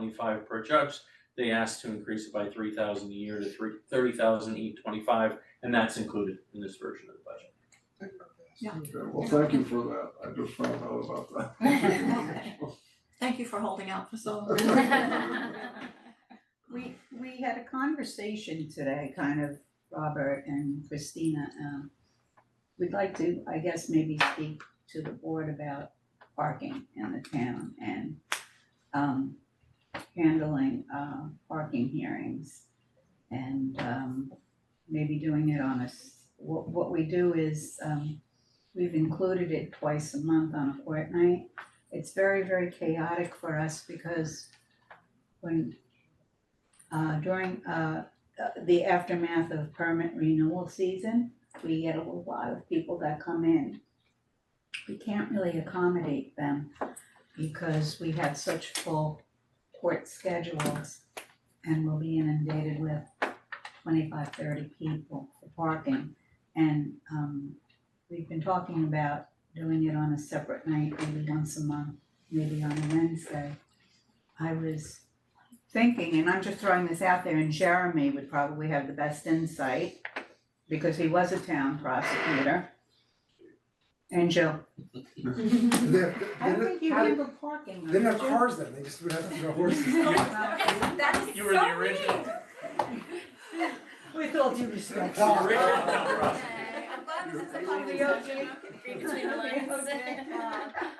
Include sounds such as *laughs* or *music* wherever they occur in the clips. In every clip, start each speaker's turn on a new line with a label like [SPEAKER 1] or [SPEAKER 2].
[SPEAKER 1] twenty-five per judge. They asked to increase it by three thousand a year to three, thirty thousand eight twenty-five, and that's included in this version of the budget.
[SPEAKER 2] Okay, well, thank you for that, I just found out about
[SPEAKER 3] *laughs*
[SPEAKER 2] that.
[SPEAKER 4] Thank you for holding out for so
[SPEAKER 3] *laughs*
[SPEAKER 4] long.
[SPEAKER 2] long.
[SPEAKER 5] We, we had a conversation today, kind of, Robert and Christina, um, we'd like to, I guess, maybe speak to the board about parking in the town and, um, handling, uh, parking hearings. And, um, maybe doing it on a, s- what, what we do is, um, we've included it twice a month on a fortnight. It's very, very chaotic for us because when uh during uh uh, the aftermath of permit renewal season, we get a lot of people that come in. We can't really accommodate them because we have such full court schedules and we'll be inundated with 25, 30 people for parking. And um we've been talking about doing it on a separate night, maybe once a month, maybe on a Wednesday. I was thinking, and I'm just throwing this out there, and Jeremy would probably have the best insight because he was a town prosecutor. And Jill,
[SPEAKER 6] They're,
[SPEAKER 5] I
[SPEAKER 6] they're
[SPEAKER 5] don't
[SPEAKER 6] not,
[SPEAKER 5] think you
[SPEAKER 6] how do-
[SPEAKER 5] handle parking.
[SPEAKER 6] they didn't have
[SPEAKER 5] Jill. *laughs*
[SPEAKER 6] cars then, they just would have their *laughs* horses.
[SPEAKER 5] Well,
[SPEAKER 4] *laughs*
[SPEAKER 3] That is
[SPEAKER 1] You were the
[SPEAKER 3] so
[SPEAKER 1] original.
[SPEAKER 3] mean.
[SPEAKER 5] With all due
[SPEAKER 6] *laughs*
[SPEAKER 5] respect.
[SPEAKER 6] The original
[SPEAKER 1] town
[SPEAKER 3] Okay, I'm glad this is a
[SPEAKER 5] You're-
[SPEAKER 3] conversation, I can
[SPEAKER 5] *laughs*
[SPEAKER 3] read between the lines.
[SPEAKER 5] uh,
[SPEAKER 2] *laughs*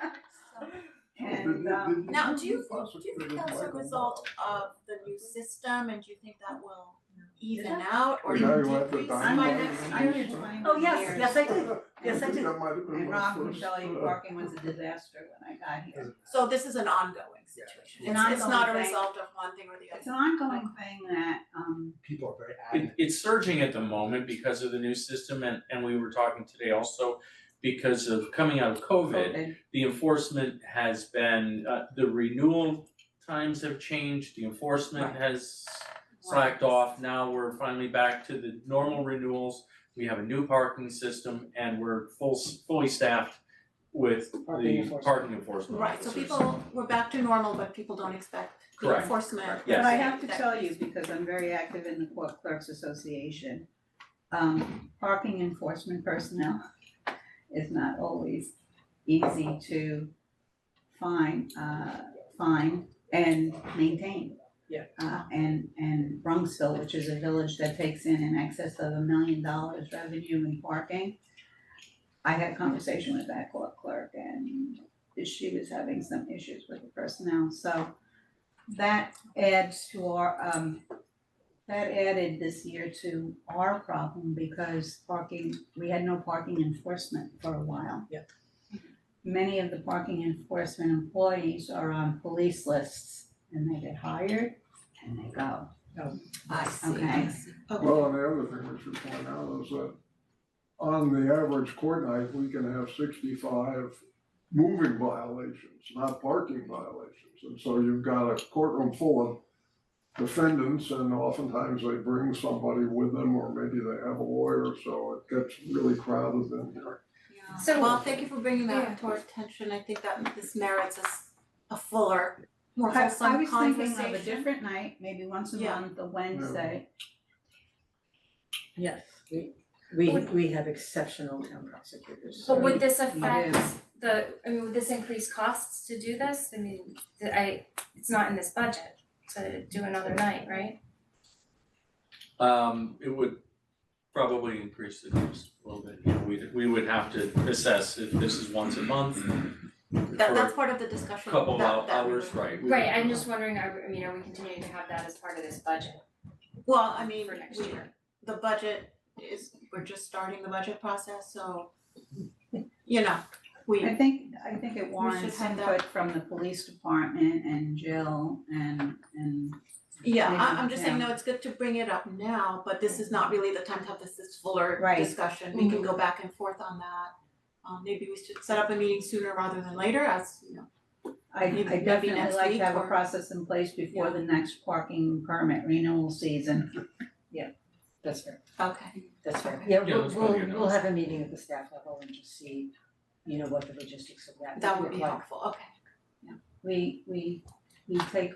[SPEAKER 5] And um,
[SPEAKER 3] Now, do you think, do you think that's a result of the new system and do you think that will even out or
[SPEAKER 2] Now you want
[SPEAKER 3] decrease
[SPEAKER 2] the
[SPEAKER 3] by
[SPEAKER 5] I'm
[SPEAKER 2] dynamite.
[SPEAKER 3] next year?
[SPEAKER 5] I'm in twenty
[SPEAKER 4] Oh, yes,
[SPEAKER 5] years.
[SPEAKER 4] yes, I did. Yes, I
[SPEAKER 2] think
[SPEAKER 4] did.
[SPEAKER 2] that might have been
[SPEAKER 5] And
[SPEAKER 2] my
[SPEAKER 5] Rob,
[SPEAKER 2] first,
[SPEAKER 5] Michelle, your
[SPEAKER 2] uh,
[SPEAKER 5] parking was a disaster when I got here.
[SPEAKER 3] So this is an ongoing situation,
[SPEAKER 5] An
[SPEAKER 3] it's, it's not a
[SPEAKER 5] ongoing thing.
[SPEAKER 3] result of one thing or the
[SPEAKER 5] It's
[SPEAKER 3] other.
[SPEAKER 5] an ongoing thing that um
[SPEAKER 6] People are very
[SPEAKER 1] It
[SPEAKER 6] adamant.
[SPEAKER 1] it's surging at the moment because of the new system and and we were talking today also because of coming out of COVID,
[SPEAKER 5] COVID,
[SPEAKER 1] the enforcement has been, uh the renewal times have changed, the enforcement has slacked off. Now we're finally back to the normal renewals. We have a new parking system and we're full fully staffed with
[SPEAKER 6] Parking
[SPEAKER 1] the
[SPEAKER 6] enforcement.
[SPEAKER 1] parking enforcement
[SPEAKER 3] Right, so
[SPEAKER 1] officers.
[SPEAKER 3] people, we're back to normal, but people don't expect the
[SPEAKER 1] Correct,
[SPEAKER 3] enforcement.
[SPEAKER 1] correct,
[SPEAKER 5] But
[SPEAKER 1] yes.
[SPEAKER 5] I have to
[SPEAKER 3] that-
[SPEAKER 5] tell you, because I'm very active in the Court Clerks Association, um, parking enforcement personnel *laughs* is not always easy to find, uh, find and maintain.
[SPEAKER 4] Yeah.
[SPEAKER 5] Uh, and, and Bronxville, which is a village that takes in in excess of a million dollars revenue in parking. I had a conversation with that court clerk and she was having some issues with the personnel, so that adds to our, um, that added this year to our problem because parking, we had no parking enforcement for a while.
[SPEAKER 4] Yep.
[SPEAKER 5] Many of the parking enforcement employees are on police lists and they get hired and they go.
[SPEAKER 3] I see,
[SPEAKER 5] Okay.
[SPEAKER 3] I see.
[SPEAKER 2] Well, and the other thing we should point out is that on the average court night, we can have sixty-five moving violations, not parking violations. And so you've got a courtroom full of defendants and oftentimes they bring somebody with them or maybe they have a lawyer, so it gets really crowded in here.
[SPEAKER 3] So, well, thank you for bringing that to our attention, I think that this merits a s- a fuller, more
[SPEAKER 5] I, I
[SPEAKER 3] wholesome
[SPEAKER 5] was
[SPEAKER 3] conversation.
[SPEAKER 5] thinking of a different night, maybe once a
[SPEAKER 3] Yeah.
[SPEAKER 5] month, a Wednesday.
[SPEAKER 4] Yes, we, we, we have exceptional town prosecutors.
[SPEAKER 7] But would this affect
[SPEAKER 5] Yeah.
[SPEAKER 7] the, I mean, would this increase costs to do this? I mean, the- I, it's not in this budget to do another night, right?
[SPEAKER 1] Um, it would probably increase the cost a little bit, you know, we we would have to assess if this is once a month
[SPEAKER 3] That
[SPEAKER 1] for
[SPEAKER 3] that's part of the discussion that
[SPEAKER 1] Couple of
[SPEAKER 3] that we
[SPEAKER 1] hours,
[SPEAKER 3] were-
[SPEAKER 1] right.
[SPEAKER 7] Right, I'm just wondering, are, we- I mean, are we continuing to have that as part of this budget
[SPEAKER 3] Well, I mean,
[SPEAKER 7] for next
[SPEAKER 3] we,
[SPEAKER 7] year?
[SPEAKER 3] the budget is, we're just starting the budget process, so you know, we
[SPEAKER 5] I think, I think it warrants
[SPEAKER 3] have that.
[SPEAKER 5] input from the police department and Jill and, and
[SPEAKER 3] Yeah, I
[SPEAKER 5] Maybe,
[SPEAKER 3] I'm just saying,
[SPEAKER 5] yeah.
[SPEAKER 3] no, it's good to bring it up now, but this is not really the time to have this this fuller
[SPEAKER 5] Right. Mm-hmm.
[SPEAKER 3] discussion, we can go back and forth on that. Um maybe we should set up a meeting sooner rather than later, as you know,
[SPEAKER 5] I
[SPEAKER 3] Maybe-
[SPEAKER 5] I
[SPEAKER 3] maybe
[SPEAKER 5] definitely
[SPEAKER 3] next
[SPEAKER 5] like
[SPEAKER 3] week
[SPEAKER 5] to have a
[SPEAKER 3] or-
[SPEAKER 5] process in place before the next parking permit renewal season.
[SPEAKER 4] That's fair,
[SPEAKER 3] okay,
[SPEAKER 4] that's fair.
[SPEAKER 1] Yeah,
[SPEAKER 4] Yeah, we'll,
[SPEAKER 1] that's probably
[SPEAKER 4] we'll,
[SPEAKER 1] a no.
[SPEAKER 4] we'll have a meeting at the staff level and just see, you know, what the logistics of that
[SPEAKER 3] that
[SPEAKER 4] would
[SPEAKER 3] would be
[SPEAKER 4] look like.
[SPEAKER 3] helpful, okay.
[SPEAKER 5] We we we take